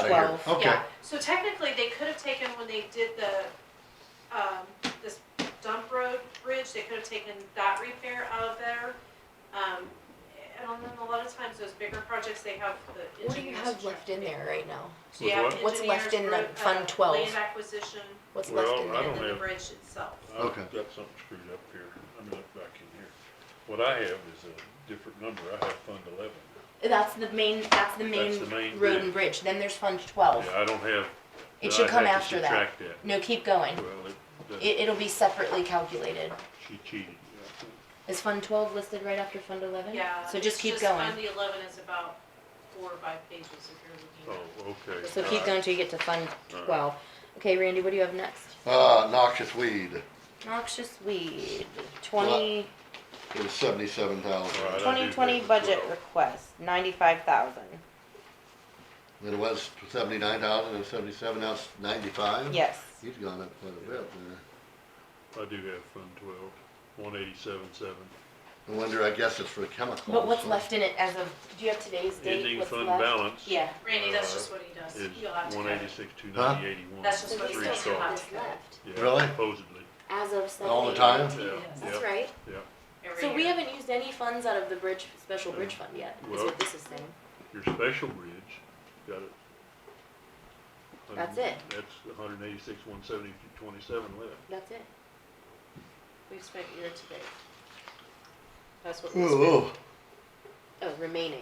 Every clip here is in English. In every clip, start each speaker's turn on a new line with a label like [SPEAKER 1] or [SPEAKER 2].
[SPEAKER 1] year.
[SPEAKER 2] Oh.
[SPEAKER 3] Twelve,
[SPEAKER 1] Okay,
[SPEAKER 4] Yeah, so technically, they could have taken, when they did the, um, this dump road bridge, they could have taken that repair out of there. Um, and then a lot of times, those bigger projects, they have the
[SPEAKER 3] What do you
[SPEAKER 4] engineers.
[SPEAKER 3] have left in there right now?
[SPEAKER 4] So you have
[SPEAKER 3] What's left in the
[SPEAKER 4] engineers,
[SPEAKER 3] Fund
[SPEAKER 4] uh,
[SPEAKER 3] 12?
[SPEAKER 4] Land acquisition
[SPEAKER 3] What's
[SPEAKER 5] Well,
[SPEAKER 3] left in
[SPEAKER 5] I
[SPEAKER 3] there?
[SPEAKER 4] and then the
[SPEAKER 5] have-
[SPEAKER 4] bridge itself.
[SPEAKER 5] I've
[SPEAKER 1] Okay.
[SPEAKER 5] got something screwed up here. Let me look back in here. What I have is a different number. I have Fund eleven.
[SPEAKER 3] That's the main, that's the main
[SPEAKER 5] That's the main
[SPEAKER 3] road
[SPEAKER 5] bridge.
[SPEAKER 3] and bridge, then there's Fund twelve.
[SPEAKER 5] Yeah, I don't have.
[SPEAKER 3] It should
[SPEAKER 5] I'd
[SPEAKER 3] come
[SPEAKER 5] have to
[SPEAKER 3] after that.
[SPEAKER 5] subtract that.
[SPEAKER 3] No, keep going.
[SPEAKER 5] Well, it,
[SPEAKER 3] It,
[SPEAKER 5] doesn't-
[SPEAKER 3] it'll be separately calculated.
[SPEAKER 5] she cheated.
[SPEAKER 3] Is Fund twelve listed right after Fund eleven?
[SPEAKER 4] Yeah.
[SPEAKER 3] So just
[SPEAKER 4] it's
[SPEAKER 3] keep going.
[SPEAKER 4] Fund eleven is about four or five pages if you're
[SPEAKER 5] Oh,
[SPEAKER 4] looking
[SPEAKER 5] okay.
[SPEAKER 3] So keep
[SPEAKER 5] All
[SPEAKER 3] going
[SPEAKER 5] right.
[SPEAKER 3] until you get to Fund
[SPEAKER 5] Alright.
[SPEAKER 3] twelve. Okay, Randy, what do you have next?
[SPEAKER 1] uh, noxious weed
[SPEAKER 3] Noxious weed, twenty,
[SPEAKER 1] is seventy-seven
[SPEAKER 5] Right.
[SPEAKER 1] thousand.
[SPEAKER 3] twenty twenty budget request, ninety-five thousand.
[SPEAKER 1] It was seventy-nine thousand and seventy-seven, now it's ninety-five?
[SPEAKER 3] Yes.
[SPEAKER 1] He's gone up quite a bit there.
[SPEAKER 5] I do have Fund twelve, one eighty-seven, seven.
[SPEAKER 1] No wonder, I guess it's for chemicals.
[SPEAKER 3] But what's
[SPEAKER 1] huh?
[SPEAKER 3] left in it as of, do you have today's date?
[SPEAKER 5] Ending
[SPEAKER 3] What's
[SPEAKER 5] fund
[SPEAKER 3] left?
[SPEAKER 5] balance
[SPEAKER 3] Yeah.
[SPEAKER 4] at. Randy, that's
[SPEAKER 5] Uh,
[SPEAKER 4] just what he does.
[SPEAKER 5] is
[SPEAKER 4] You'll have to.
[SPEAKER 5] one
[SPEAKER 4] cut it.
[SPEAKER 5] eighty-six, two ninety, eighty-one.
[SPEAKER 4] That's just
[SPEAKER 2] So
[SPEAKER 4] what
[SPEAKER 2] we
[SPEAKER 4] he
[SPEAKER 2] still
[SPEAKER 5] Three
[SPEAKER 4] says.
[SPEAKER 5] star.
[SPEAKER 2] have this left,
[SPEAKER 5] Yeah,
[SPEAKER 1] Really?
[SPEAKER 5] Supposedly,
[SPEAKER 2] as of seventy.
[SPEAKER 1] All the time?
[SPEAKER 5] yeah,
[SPEAKER 4] Yes.
[SPEAKER 5] yeah.
[SPEAKER 2] That's right.
[SPEAKER 4] every
[SPEAKER 3] So we
[SPEAKER 4] year.
[SPEAKER 3] haven't used any funds out of the bridge, special bridge fund yet, is
[SPEAKER 5] Well-
[SPEAKER 3] what this is saying.
[SPEAKER 5] Your special bridge, got it.
[SPEAKER 3] That's it.
[SPEAKER 5] That's a hundred and eighty-six, one seventy, twenty-seven left.
[SPEAKER 3] That's it.
[SPEAKER 2] We've spent year to date.
[SPEAKER 3] That's what, this-
[SPEAKER 1] Ooh,
[SPEAKER 3] oh, remaining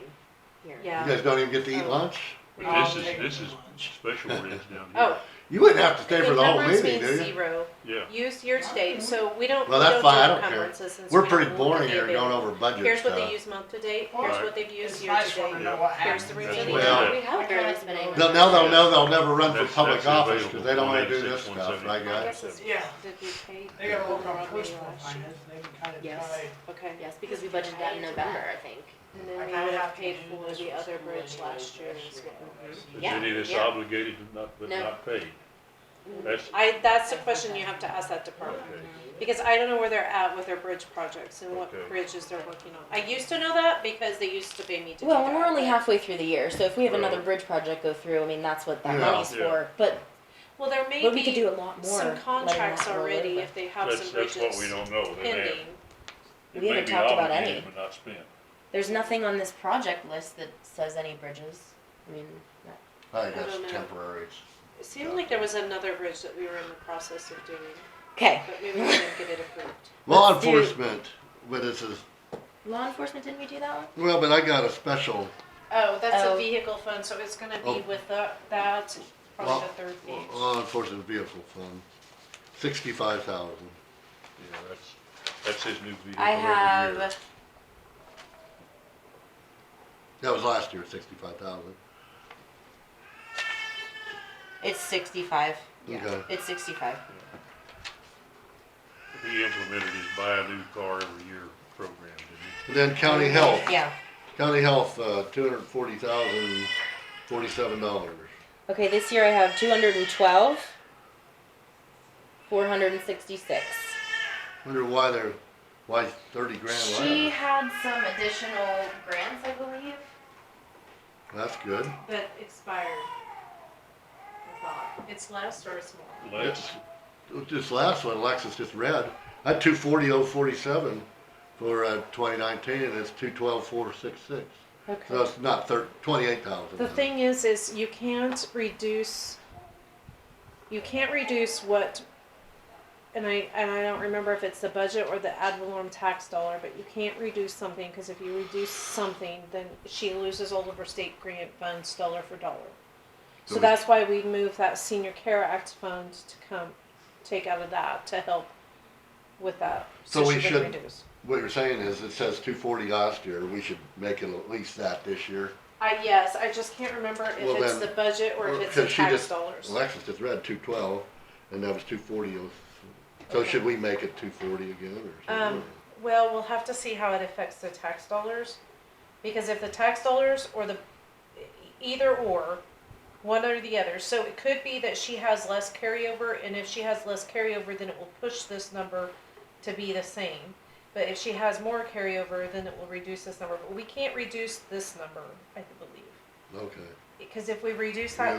[SPEAKER 3] here.
[SPEAKER 1] you
[SPEAKER 4] Yeah.
[SPEAKER 1] guys don't even get to eat lunch?
[SPEAKER 4] We
[SPEAKER 5] But
[SPEAKER 4] all
[SPEAKER 5] this
[SPEAKER 4] take-
[SPEAKER 5] is, this is special bridge down here.
[SPEAKER 2] Um, Oh.
[SPEAKER 1] You wouldn't have to stay for the whole
[SPEAKER 2] Encumbrance
[SPEAKER 1] meeting,
[SPEAKER 2] means
[SPEAKER 1] do you?
[SPEAKER 2] Zero,
[SPEAKER 5] Yeah,
[SPEAKER 2] used year to date, so we don't, we
[SPEAKER 1] Well, that's
[SPEAKER 2] don't do
[SPEAKER 1] fine, I don't care.
[SPEAKER 2] encumbrances since.
[SPEAKER 1] We're
[SPEAKER 2] we
[SPEAKER 1] pretty
[SPEAKER 2] don't know what
[SPEAKER 1] boring
[SPEAKER 2] they
[SPEAKER 1] here,
[SPEAKER 2] do.
[SPEAKER 1] going over budget
[SPEAKER 2] Here's what they
[SPEAKER 1] stuff.
[SPEAKER 2] use month to date, here's
[SPEAKER 5] Alright.
[SPEAKER 2] what they've used
[SPEAKER 6] It's
[SPEAKER 2] year
[SPEAKER 6] nice
[SPEAKER 2] to
[SPEAKER 6] when we
[SPEAKER 2] date.
[SPEAKER 6] know what
[SPEAKER 2] Here's
[SPEAKER 6] happened.
[SPEAKER 4] the
[SPEAKER 6] That's
[SPEAKER 4] remaining.
[SPEAKER 5] what-
[SPEAKER 1] Well-
[SPEAKER 3] We have
[SPEAKER 2] Barely
[SPEAKER 3] barely been able.
[SPEAKER 1] They'll- Now they'll
[SPEAKER 5] Yeah.
[SPEAKER 1] know they'll never run for
[SPEAKER 5] That's-
[SPEAKER 1] public
[SPEAKER 5] that's
[SPEAKER 1] office,
[SPEAKER 5] available,
[SPEAKER 1] cause they don't wanna do this stuff,
[SPEAKER 5] 186,
[SPEAKER 1] right
[SPEAKER 5] 170.
[SPEAKER 2] I
[SPEAKER 1] guys?
[SPEAKER 2] guess it's.
[SPEAKER 6] Yeah.
[SPEAKER 2] Did we pay?
[SPEAKER 6] They gotta work
[SPEAKER 2] Or
[SPEAKER 6] on
[SPEAKER 2] maybe
[SPEAKER 6] personal
[SPEAKER 2] last year?
[SPEAKER 6] finance, they've been kind of
[SPEAKER 3] Yes.
[SPEAKER 6] tied.
[SPEAKER 2] Okay.
[SPEAKER 3] Yes, because we budgeted that in November, I think.
[SPEAKER 2] And then
[SPEAKER 6] I
[SPEAKER 2] we
[SPEAKER 6] kinda
[SPEAKER 2] would have
[SPEAKER 6] have to
[SPEAKER 2] paid
[SPEAKER 6] do
[SPEAKER 2] for
[SPEAKER 6] this
[SPEAKER 2] the
[SPEAKER 6] with
[SPEAKER 2] other
[SPEAKER 6] school
[SPEAKER 2] bridge
[SPEAKER 6] anyway
[SPEAKER 2] last year as
[SPEAKER 6] year.
[SPEAKER 2] well.
[SPEAKER 5] is
[SPEAKER 3] Yeah,
[SPEAKER 5] any of this
[SPEAKER 3] yeah.
[SPEAKER 5] obligated but not, but
[SPEAKER 3] No.
[SPEAKER 5] not paid?
[SPEAKER 2] Mm.
[SPEAKER 5] That's,
[SPEAKER 2] I, that's the question you have to ask that department,
[SPEAKER 5] okay,
[SPEAKER 2] because I don't know where they're at with their bridge projects and what
[SPEAKER 5] Okay.
[SPEAKER 2] bridges they're working on. I used to know that because they used to pay me to do that.
[SPEAKER 3] Well, and we're only
[SPEAKER 2] but-
[SPEAKER 3] halfway through the year, so if we have
[SPEAKER 5] Right.
[SPEAKER 3] another bridge project go through, I mean, that's what that
[SPEAKER 1] Yeah.
[SPEAKER 3] money's
[SPEAKER 5] Yeah.
[SPEAKER 3] for, but,
[SPEAKER 2] Well, there may
[SPEAKER 3] but we could
[SPEAKER 2] be
[SPEAKER 3] do a lot more.
[SPEAKER 2] some
[SPEAKER 3] letting
[SPEAKER 2] contracts
[SPEAKER 3] that roll
[SPEAKER 2] already
[SPEAKER 3] over.
[SPEAKER 2] if they have
[SPEAKER 5] that's,
[SPEAKER 2] some
[SPEAKER 5] that's what we
[SPEAKER 2] bridges
[SPEAKER 5] don't know, they have.
[SPEAKER 2] pending.
[SPEAKER 5] It
[SPEAKER 3] We
[SPEAKER 5] may
[SPEAKER 3] haven't
[SPEAKER 5] be
[SPEAKER 3] talked about
[SPEAKER 5] obligated
[SPEAKER 3] any.
[SPEAKER 5] But not spent.
[SPEAKER 3] There's nothing on this project list that says any bridges, I mean, that-
[SPEAKER 1] Probably
[SPEAKER 2] I don't know.
[SPEAKER 1] that's temporary.
[SPEAKER 2] It seemed like there was another bridge that we were in the process of doing,
[SPEAKER 3] okay.
[SPEAKER 2] but maybe we didn't get it approved.
[SPEAKER 1] Law
[SPEAKER 3] Let's do-
[SPEAKER 1] enforcement, but this is,
[SPEAKER 3] Law enforcement, didn't we do that one?
[SPEAKER 1] well, but I got a special,
[SPEAKER 2] Oh, that's
[SPEAKER 3] Oh.
[SPEAKER 2] a vehicle fund, so it's gonna
[SPEAKER 1] Oh.
[SPEAKER 2] be with the- that,
[SPEAKER 1] Well,
[SPEAKER 2] probably the third page.
[SPEAKER 1] law enforcement vehicle fund, sixty-five thousand.
[SPEAKER 5] Yeah, that's, that's his new vehicle
[SPEAKER 3] I
[SPEAKER 5] every year.
[SPEAKER 3] have,
[SPEAKER 1] That was last year, sixty-five thousand.
[SPEAKER 3] it's sixty-five,
[SPEAKER 1] Okay.
[SPEAKER 3] it's sixty-five.
[SPEAKER 5] He implemented his buy a new car every year program, didn't
[SPEAKER 1] And Then county health,
[SPEAKER 3] Yeah,
[SPEAKER 1] county health, uh, two hundred and forty thousand, forty-seven dollars.
[SPEAKER 3] okay, this year I have two hundred and twelve, four hundred and sixty-six.
[SPEAKER 1] Wonder why they're, why thirty grand
[SPEAKER 3] She
[SPEAKER 1] less?
[SPEAKER 3] had some additional grants, I believe.
[SPEAKER 1] That's good.
[SPEAKER 4] That expired. I thought. It's less or it's more?
[SPEAKER 5] he? Less,
[SPEAKER 1] This last one, Alexis just read, I had two forty oh forty-seven for, uh, twenty nineteen, and it's two twelve four six six. So
[SPEAKER 2] Okay.
[SPEAKER 1] it's not thir- twenty-eight thousand.
[SPEAKER 2] The thing is, is you can't reduce, you can't reduce what, and I, and I don't remember if it's the budget or the ad valorem tax dollar, but you can't reduce something, cause if you reduce something, then she loses all of her state grant funds dollar for dollar.
[SPEAKER 1] So
[SPEAKER 2] So
[SPEAKER 1] we-
[SPEAKER 2] that's why we moved that senior care act fund to come, take out of that to help with that.
[SPEAKER 1] So we
[SPEAKER 2] she can
[SPEAKER 1] should-
[SPEAKER 2] reduce.
[SPEAKER 1] What you're saying is, it says two forty last year, we should make it at least that this year.
[SPEAKER 2] I, yes, I just can't remember
[SPEAKER 1] Well,
[SPEAKER 2] if it's
[SPEAKER 1] then-
[SPEAKER 2] the budget or if it's the
[SPEAKER 1] Because she
[SPEAKER 2] tax
[SPEAKER 1] just-
[SPEAKER 2] dollars.
[SPEAKER 1] Alexis just read two twelve, and that was two forty oh, so should we make it two forty again, or
[SPEAKER 2] Um,
[SPEAKER 1] something?
[SPEAKER 2] well, we'll have to see how it affects the tax dollars, because if the tax dollars or the, e, either or, one or the other, so it could be that she has less carryover, and if she has less carryover, then it will push this number to be the same. But if she has more carryover, then it will reduce this number, but we can't reduce this number, I believe,
[SPEAKER 1] Okay.
[SPEAKER 2] because if we reduce that
[SPEAKER 1] Yeah.